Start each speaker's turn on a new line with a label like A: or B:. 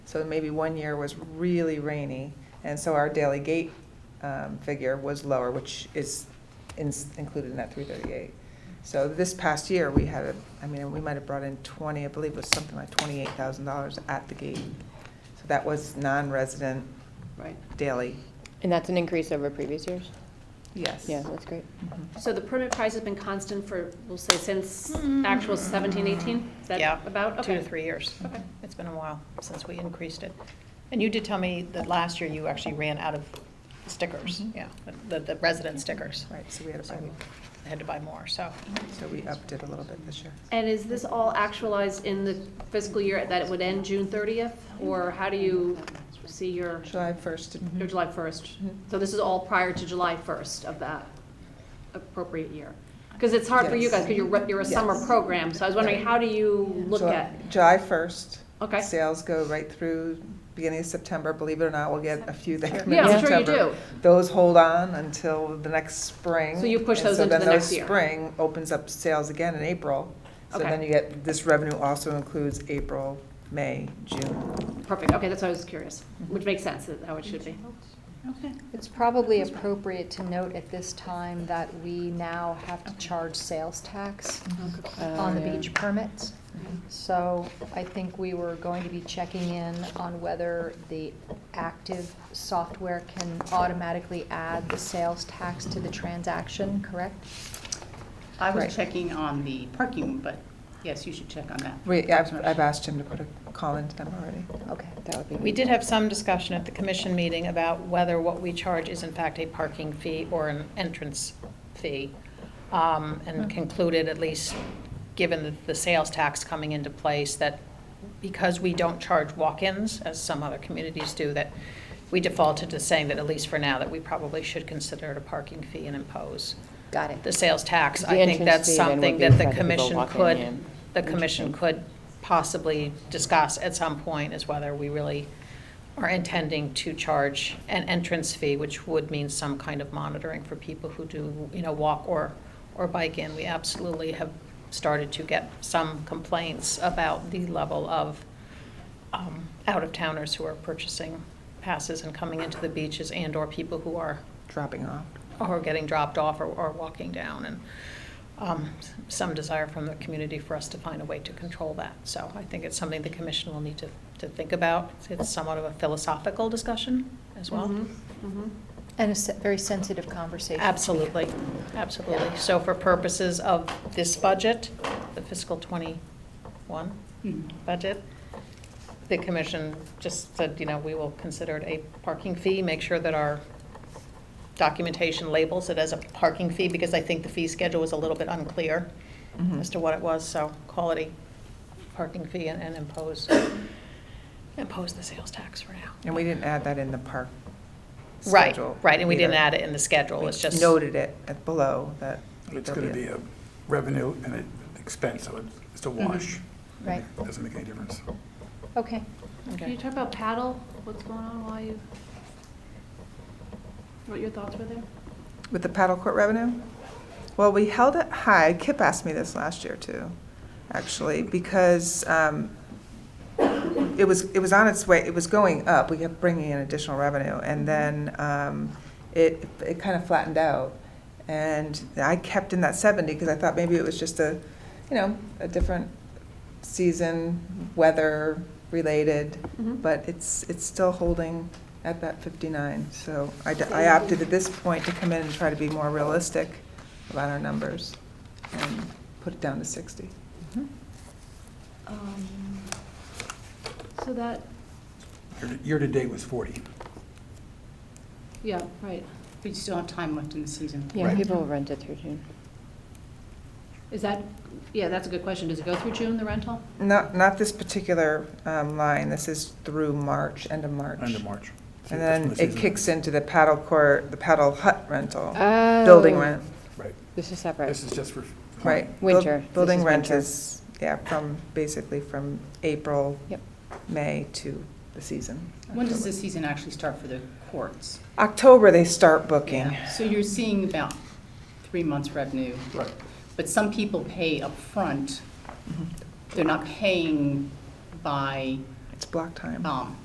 A: So maybe one year was really rainy, and so our daily gate um, figure was lower, which is in- included in that 338. So this past year, we had, a- I mean, we might have brought in 20, I believe it was something like $28,000 at the gate. So that was non-resident
B: Right.
A: daily,
C: And that's an increase over previous years?
A: yes.
C: Yeah, that's great.
A: Mhm.
B: So the permit price has been constant for, we'll say, since
A: Mm-hmm.
B: actual seventeen, eighteen? Is
D: Yeah,
B: that about?
D: Two to
B: Okay.
D: three years.
B: Okay.
D: It's been a while since we increased it. And you did tell me that last year you actually ran out of stickers,
A: Mhm.
D: yeah, the, the resident stickers.
A: Right, so we had
D: So
A: a,
D: we Had to buy more, so.
A: so we upped it a little bit this year.
B: And is this all actualized in the fiscal year that it would end June thirtieth? Or how do you see your,
A: July 1st, to-
B: your July first? So this is all prior to July first of that appropriate year? Because it's hard for you
A: Yes.
B: guys, because you're, re- you're a summer
A: Yes.
B: program, so I was wondering, how do you look
A: July-
B: at?
A: July 1st.
B: Okay.
A: Sales go right through beginning of September. Believe it or not, we'll get a few that come in
B: Yeah, I'm sure you
A: September.
B: do.
A: Those hold on until the next spring.
B: So you push
A: and
B: those
A: so
B: into
A: then
B: the
A: those
B: next year.
A: Spring opens up sales again in April. So
B: Okay.
A: then you get, this revenue also includes April, May, June.
B: Perfect, okay, that's what I was curious, which makes sense, that how it should be.
E: It's probably appropriate to note at this time that we now have to charge sales tax on the
C: Oh, yeah.
E: beach permits. So I think we were going to be checking in on whether the active software can automatically add the sales tax to the transaction, correct?
F: I
A: Right.
F: was checking on the parking, but yes, you should check on that.
A: Wait, I've, I've asked him to put a call into them already.
E: Okay.
C: That would be.
D: We did have some discussion at the commission meeting about whether what we charge is in fact a parking fee or an entrance fee. um,
C: Hmm.
D: And concluded, at least, given the, the sales tax coming into place, that because we don't charge walk-ins, as some other communities do, that we defaulted to saying that at least for now, that we probably should consider it a parking fee and impose
C: Got it.
D: the sales tax.
C: The
D: I think
C: entrance
D: that's
C: fee then would
D: something
C: be
D: that the
C: for people
D: commission
C: walking
D: could,
C: in.
D: the commission could possibly discuss at some point is whether we really are intending to charge an entrance fee, which would mean some kind of monitoring for people who do, you know, walk or, or bike in. We absolutely have started to get some complaints about the level of um, out-of-towners who are purchasing passes and coming into the beaches and/or people who are
A: Dropping off.
D: or getting dropped off or, or walking down, and um, some desire from the community for us to find a way to control that. So I think it's something the commission will need to, to think about. It's somewhat of a philosophical discussion as well.
B: Mhm, mhm.
E: And a se- very sensitive conversation.
D: Absolutely, absolutely. So for purposes of this budget, the fiscal twenty-one
F: Mhm.
D: budget, the commission just said, you know, we will consider it a parking fee, make sure that our documentation labels it as a parking fee, because I think the fee schedule was a little bit unclear
A: Mhm.
D: as to what it was, so quality parking fee and and impose, impose the sales tax for now.
A: And we didn't add that in the park
D: Right,
A: schedule.
D: right, and we didn't
A: either.
D: add it in the schedule, it's just.
A: Noted it at below that.
G: It's
A: there'll
G: going to be a revenue and an expense, so it's- it's a
A: Mm-hmm.
G: wash.
E: Right,
G: Doesn't make any difference.
E: okay.
D: Okay.
B: Can you talk about paddle? What's going on while you, what your thoughts were there?
A: With the paddle court revenue? Well, we held it high. Kip asked me this last year too, actually, because um, it was, it was on its way, it was going up. We kept bringing in additional revenue. And then um, it, it kind of flattened out. And I kept in that 70 because I thought maybe it was just a, you know, a different season, weather related.
B: Mhm.
A: But it's, it's still holding at that 59. So I d- I opted at this point to come in and try to be more realistic about our numbers and put it down to 60.
C: Mm-hmm.
B: Um, So that,
G: Year- Year-to-date was 40.
B: yeah, right.
F: We still have time left in the season.
C: Yeah,
G: Right.
C: people will rent it through June.
B: Is that, yeah, that's a good question. Does it go through June, the rental?
A: Not, not this particular um, line, this is through March, end of March.
G: End of March. So
A: And
G: that's when
A: then
G: the
A: it
G: season-
A: kicks into the paddle court, the paddle hut rental,
C: Oh.
A: building rent,
G: Right.
C: This is separate.
G: This is just for.
A: right? Buil-
C: Winter. This
A: Building
C: is
A: rent
C: winter.
A: is, yeah, from, basically from April,
C: Yep.
A: May to the season.
F: When does
A: October.
F: the season actually start for the courts?
A: October, they start booking.
F: So you're seeing about three months' revenue,
G: Right.
F: but some people pay upfront. They're not paying by,
A: It's block time.
F: um,